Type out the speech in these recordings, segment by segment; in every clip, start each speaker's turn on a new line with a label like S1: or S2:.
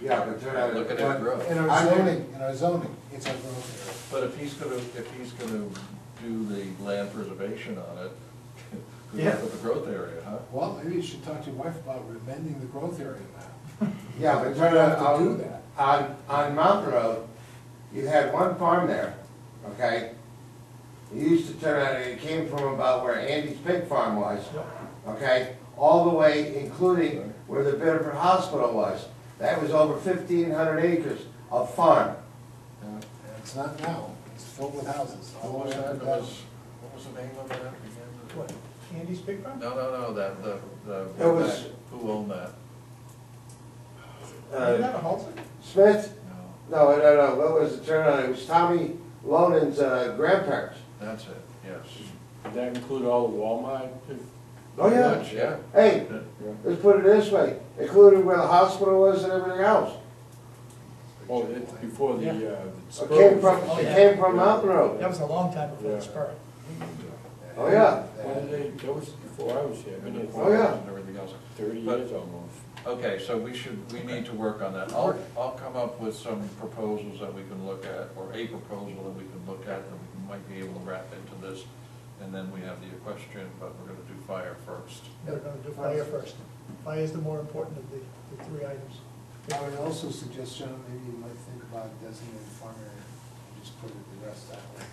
S1: Yeah, but they're not.
S2: Look at it grow.
S3: In our zoning, in our zoning, it's our growth
S2: But if he's gonna, if he's gonna do the land preservation on it, good
S4: Yeah.
S2: luck with the growth area, huh?
S3: area. Well, maybe you should talk to your wife about amending the growth area map.
S1: Yeah, but
S3: You have to
S1: on-
S3: do that.
S1: On, on Mount Road, you had one farm there, okay? It used to turn out, it came from about where Andy's pig farm was, okay? All the way, including where the Bedford Hospital was. That was over fifteen hundred acres of farm.
S2: Yeah.
S3: And It's not now, it's filled with houses. all the
S2: What was
S3: way up
S2: that,
S3: and
S2: It
S3: down.
S2: was, what was the name of that again?
S4: What, Andy's Big Farm?
S2: No, no, no, that, the, the.
S1: It was-
S2: Who owned that?
S1: Uh,
S3: Uh,
S4: Isn't that a Halsey?
S1: Smith?
S2: No,
S1: No, no, no, what was the turnout? It was Tommy Lonan's uh, grandparents.
S2: that's it, yes.
S5: Did that include all the Walmart?
S1: Oh, yeah.
S2: Much, Yeah.
S1: Hey, let's put it this way, including where the hospital was and everything else.
S5: Oh, it's before the, uh. the
S1: It came
S5: Spurs.
S1: from, it came from Mountain
S4: That
S1: Road.
S4: was a long time before the
S5: Yeah.
S4: spur.
S1: Oh, yeah.
S5: Well, they, that was before I was here, I
S2: And
S5: mean,
S2: the
S5: it's
S1: Oh, yeah.
S2: corners and everything else.
S5: thirty
S2: But-
S5: years almost.
S2: Okay, so we should, we need to work on that. I'll, I'll come up with some proposals that we can look at, or a proposal that we can look at, that we might be able to wrap into this. And then we have the equestrian, but we're gonna do fire first.
S4: We're gonna do fire first. Fire is the more important of the, the three items.
S3: I would also suggest, John, maybe you might think about designated farm area, and just put it the rest that way.
S4: And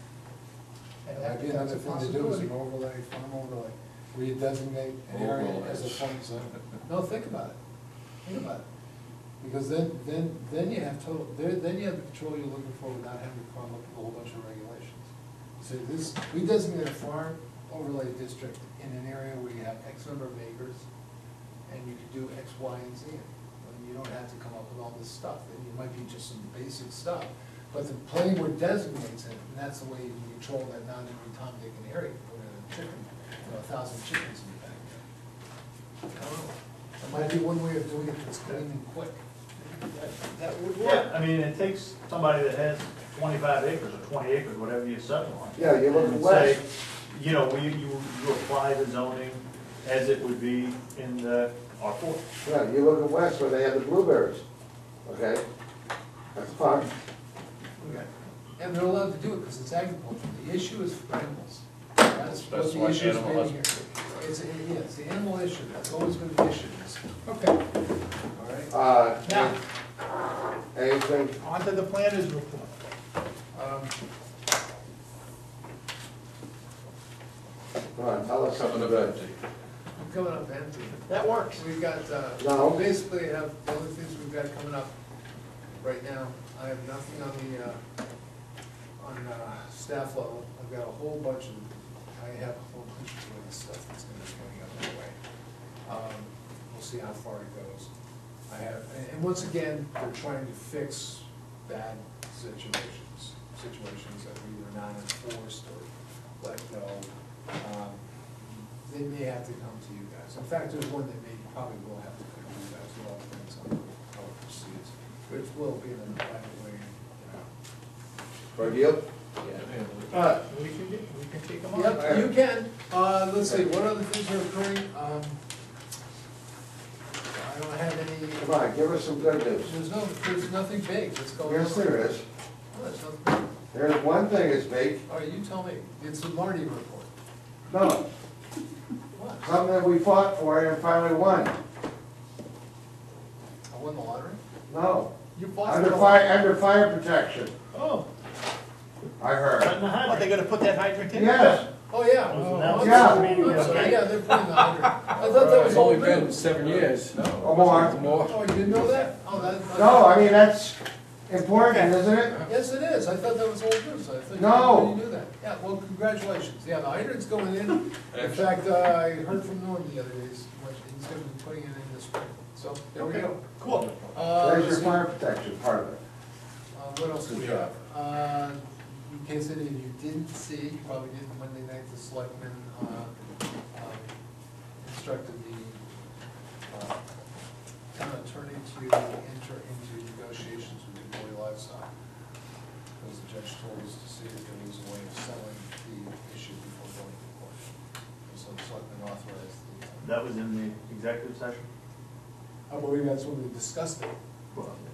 S3: And
S4: that-
S3: that'd be another
S4: that's a
S3: thing to do is an
S4: possibility.
S3: overlay, farm overlay, where you designate an area as a
S2: Overlays.
S3: farm zone. No, think about it, think about it. Because then, then, then you have total, then, then you have the control you're looking for without having to come up with a whole bunch of regulations. So this, we designate a farm overlay district in an area where you have X number of acres, and you can do X, Y, and Z. And you don't have to come up with all this stuff, and it might be just some basic stuff. But the planning board designates it, and that's the way you can control that non-incumbent area, put in a chicken, you know, a thousand chickens in the back there. I don't know. That might be one way of doing it that's clean and quick. That- That would
S6: Yeah,
S3: work.
S6: I mean, it takes somebody that has twenty-five acres or twenty acres, whatever you settle on.
S1: Yeah, you look
S6: and
S1: west.
S6: say, You know, you, you, you apply the zoning as it would be in the R four.
S1: Yeah, you look at west where they had the blueberries, okay? That's farm.
S3: And they're allowed to do it because it's agriculture. The issue is for animals.
S2: That's
S3: That's what the
S2: why
S3: issue is
S2: animal
S3: being here.
S2: husband-
S3: It's, yeah, it's the animal issue. That's always been the issue. Okay. All right.
S1: Uh,
S4: Now,
S1: anything,
S4: onto the planners report.
S3: Um,
S1: come on, tell us
S2: Coming
S1: something
S2: up
S1: good.
S2: empty.
S3: I'm coming up empty.
S4: That works.
S3: We've got,
S1: No.
S3: uh, we basically have, the other things we've got coming up right now, I have nothing on the, uh, on, uh, staff level. I've got a whole bunch of, I have a whole bunch of doing stuff that's gonna be coming up that way. Um, We'll see how far it goes. I have, and, and once again, we're trying to fix bad situations, situations that we were not enforced or let go. Um, they may have to come to you guys. In fact, there's one that may, probably will have to come to you guys with all the things on how it proceeds. But it will be in a private way, you know.
S1: For you?
S4: Uh, we can do, we can take them on.
S3: Yep, you can. Uh, let's see, what other things are occurring? Um, I don't have
S1: Come
S3: any,
S1: on, give us some good news.
S3: there's no, there's nothing big that's going on.
S1: Yes, there is.
S3: No, there's nothing big.
S1: There's one thing that's big,
S3: All right, you tell me. It's the Marty report.
S1: no,
S3: What?
S1: something that we fought for and finally won.
S3: I won the lottery?
S1: No,
S3: You bought
S1: under
S3: the
S1: fire, under fire protection,
S4: Oh,
S1: I heard.
S4: are they gonna put that hydrant in?
S1: Yes,
S3: Oh, yeah.
S6: Was
S3: Oh,
S6: announced
S3: I'm
S1: at the
S3: sorry.
S6: meeting
S3: I'm sorry.
S6: yesterday.
S3: Yeah, they're putting the hundred. I thought that was
S5: It's
S3: all
S5: only
S3: new.
S5: been seven years.
S1: or more.
S5: More.
S3: Oh, you didn't know that? Oh, that.
S1: No, I mean, that's important, isn't it?
S3: Yes, it is. I thought that was old news. I thought you
S1: No.
S3: already knew that. Yeah, well, congratulations. Yeah, the hydrant's going in. In fact, uh, I heard from Norm the other day, he's, he's gonna be putting it in this spring. So, there we go.
S4: Cool.
S3: Uh,
S1: There's your
S3: let's see.
S1: fire protection part of it.
S3: Uh, What else do we have? Uh, In case any of you didn't see, you probably didn't, Monday night, the selectmen uh, um, instructed the uh, town attorney to enter into negotiations with Dubois Livestock. Because the judge told us to see if there was a way of settling the issue before going to court. And So the selectmen authorized the, uh,
S6: That was in the executive session?
S3: I believe that's when we discussed it.
S6: Well,